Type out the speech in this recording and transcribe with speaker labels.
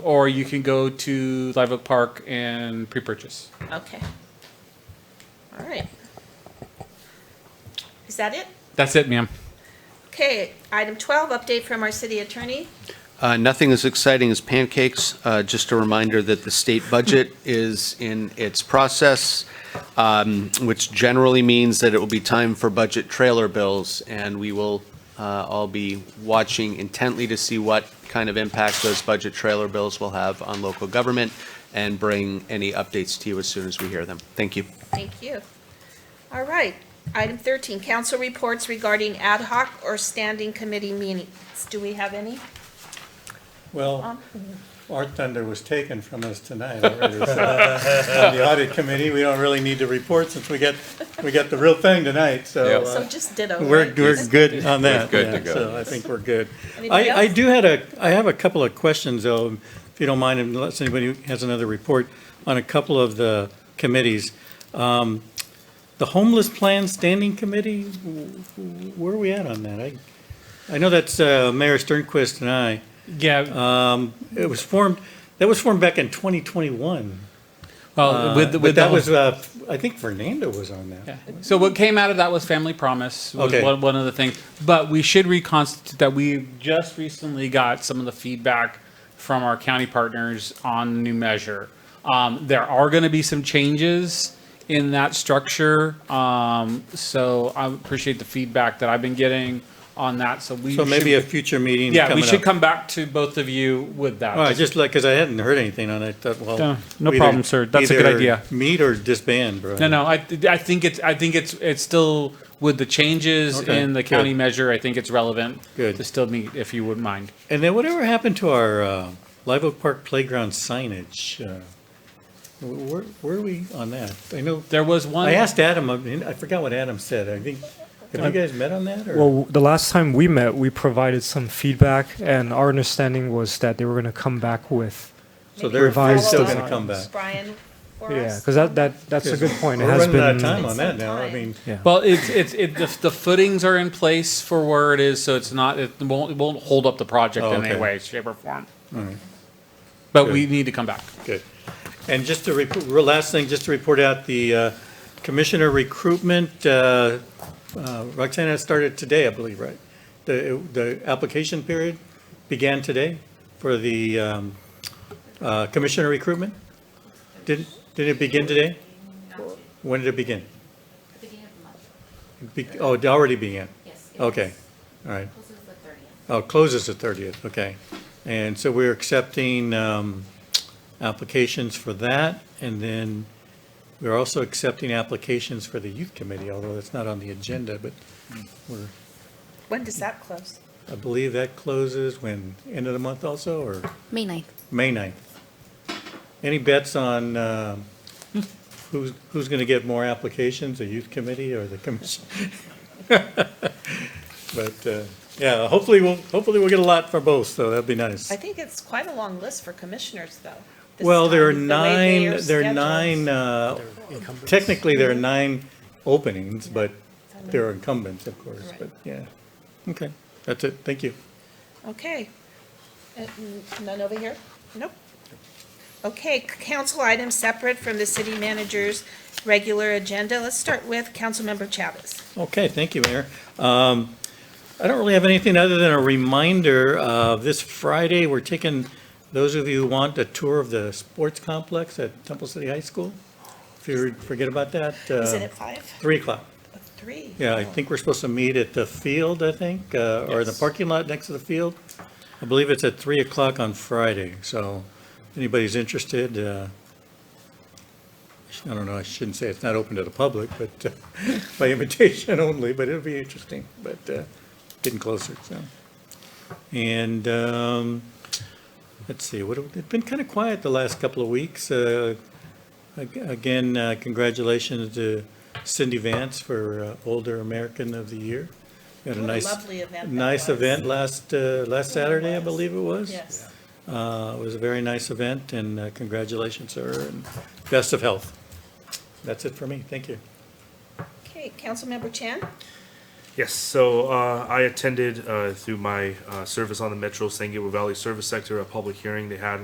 Speaker 1: or you can go to Live Oak Park and pre-purchase.
Speaker 2: Okay. All right. Is that it?
Speaker 1: That's it, ma'am.
Speaker 2: Okay, item 12, update from our city attorney.
Speaker 3: Uh, Nothing as exciting as pancakes. Uh, Just a reminder that the state budget is in its process, um, which generally means that it will be time for budget trailer bills, and we will uh, all be watching intently to see what kind of impact those budget trailer bills will have on local government, and bring any updates to you as soon as we hear them. Thank you.
Speaker 2: Thank you. All right, item 13, council reports regarding ad hoc or standing committee meetings. Do we have any? Um,
Speaker 4: Well, our thunder was taken from us tonight already. so, On the audit committee, we don't really need to report since we got, we got the real thing tonight, so.
Speaker 2: So
Speaker 4: uh,
Speaker 2: just ditto.
Speaker 4: We're,
Speaker 2: right?
Speaker 4: we're good on that,
Speaker 5: good to
Speaker 4: yeah,
Speaker 5: go.
Speaker 4: so I think we're good.
Speaker 2: Anybody
Speaker 4: I, I
Speaker 2: else?
Speaker 4: do had a, I have a couple of questions though, if you don't mind, unless anybody has another report on a couple of the committees. Um, The homeless plan standing committee, w- w- where are we at on that? I, I know that's uh, Mayor Sternquist and I. Uh,
Speaker 1: Yeah,
Speaker 4: It was formed, that was formed back in 2021.
Speaker 1: well, with, the-
Speaker 4: Uh, But
Speaker 1: with
Speaker 4: that was,
Speaker 1: the,
Speaker 4: uh, I think Fernando was on that.
Speaker 1: yeah. so what came out of that was Family Promise was
Speaker 4: Okay.
Speaker 1: one, one of the things. But we should reconstitute that we just recently got some of the feedback from our county partners on the new measure. Um, there are going to be some changes in that structure. Um, so I appreciate the feedback that I've been getting on that. So we
Speaker 4: So maybe a
Speaker 1: should,
Speaker 4: future meeting
Speaker 1: yeah, we
Speaker 4: coming
Speaker 1: should
Speaker 4: up.
Speaker 1: come back to both of you with that.
Speaker 4: All right, just like, because I hadn't heard anything on it, thought, well.
Speaker 1: Yeah, no
Speaker 4: either-
Speaker 1: problem, sir. That's a good
Speaker 4: either
Speaker 1: idea.
Speaker 4: Meet or disband, bro.
Speaker 1: No, no, I, I think it's, I think it's, it's still with the changes
Speaker 4: Okay,
Speaker 1: in the county
Speaker 4: good.
Speaker 1: measure, I think it's relevant.
Speaker 4: Good.
Speaker 1: To still meet, if you wouldn't mind.
Speaker 4: And then whatever happened to our uh, Live Oak Park Playground signage? uh, wh- Where, where are we on that? I know,
Speaker 1: There was one.
Speaker 4: I asked Adam, I mean, I forgot what Adam said. I think,
Speaker 1: Uh,
Speaker 4: have you guys met on that or?
Speaker 6: Well, the last time we met, we provided some feedback, and our understanding was that they were going to come back with,
Speaker 4: So they're they're
Speaker 6: revised
Speaker 4: still
Speaker 6: design.
Speaker 4: going to come back.
Speaker 2: Brian for
Speaker 6: yeah,
Speaker 2: us?
Speaker 6: because that, that, that's a good point. It
Speaker 4: We're
Speaker 6: has
Speaker 4: running out
Speaker 6: been.
Speaker 4: of time on
Speaker 2: It's been
Speaker 4: that now. I
Speaker 2: time.
Speaker 4: mean,
Speaker 6: Yeah.
Speaker 1: Well, it's, it's, it, the, the footings are in place for where it is, so it's not, it won't, it won't hold up the project
Speaker 4: Oh,
Speaker 1: in any
Speaker 4: okay.
Speaker 1: way, shape or form. But we
Speaker 4: Good.
Speaker 1: need to come back.
Speaker 4: Good. And just to, rep- real last thing, just to report out the uh, commissioner recruitment, uh, uh, Roxana started today, I believe, right? The, the application period began today for the um, uh, commissioner recruitment? Did, did it begin today? When did it begin?
Speaker 7: Beginning of the month,
Speaker 4: Be- Oh, it already began?
Speaker 7: yes. it
Speaker 4: Okay, all right.
Speaker 7: Closes the thirtieth.
Speaker 4: Oh, closes the 30th, okay. And so we're accepting um, applications for that, and then we're also accepting applications for the youth committee, although that's not on the agenda, but we're,
Speaker 2: When does that close?
Speaker 4: I believe that closes when, end of the month also, or
Speaker 7: May ninth.
Speaker 4: May 9th? Any bets on um, who's, who's going to get more applications, the youth committee or the commission? But, uh, yeah, hopefully we'll, hopefully we'll get a lot for both, so that'd be nice.
Speaker 2: I think it's quite a long list for commissioners, though. this
Speaker 4: Well, there are
Speaker 2: time, the way they
Speaker 4: nine, there are
Speaker 2: scheduled.
Speaker 4: nine, uh, technically, there are nine openings, but there are incumbents, of course,
Speaker 2: Right.
Speaker 4: but, yeah. Okay, that's it, thank you.
Speaker 2: Okay. Uh, n- None over here? Nope. Okay, c- council items separate from the city manager's regular agenda. Let's start with Councilmember Chavez.
Speaker 4: Okay, thank you, Mayor. Um, I don't really have anything other than a reminder, uh, this Friday, we're taking, those of you who want a tour of the sports complex at Temple City High School, if you forget about that.
Speaker 2: Is
Speaker 4: uh,
Speaker 2: it at five?
Speaker 4: Three o'clock.
Speaker 2: Three?
Speaker 4: Yeah, I think we're supposed to meet at the field, I think, uh, or the
Speaker 1: Yes.
Speaker 4: parking lot next to the field. I believe it's at 3 o'clock on Friday, so if anybody's interested, uh, I don't know, I shouldn't say it's not open to the public, but uh, by invitation only, but it'll be interesting, but uh, getting closer, so. And um, let's see, what, it's been kind of quiet the last couple of weeks. Uh, ag- Again, uh, congratulations to Cindy Vance for uh, Older American of the Year. Had a
Speaker 2: What a
Speaker 4: nice,
Speaker 2: lovely event that
Speaker 4: nice
Speaker 2: was.
Speaker 4: event last, uh, last Saturday, I
Speaker 2: was.
Speaker 4: believe it was.
Speaker 2: Yes.
Speaker 4: Uh, It was a very nice event, and uh, congratulations, sir, and best of health. That's it for me, thank you.
Speaker 2: Okay, Councilmember Chan?
Speaker 8: Yes, so uh, I attended uh, through my uh, service on the Metro San Gabriel Valley Service Sector a public hearing they had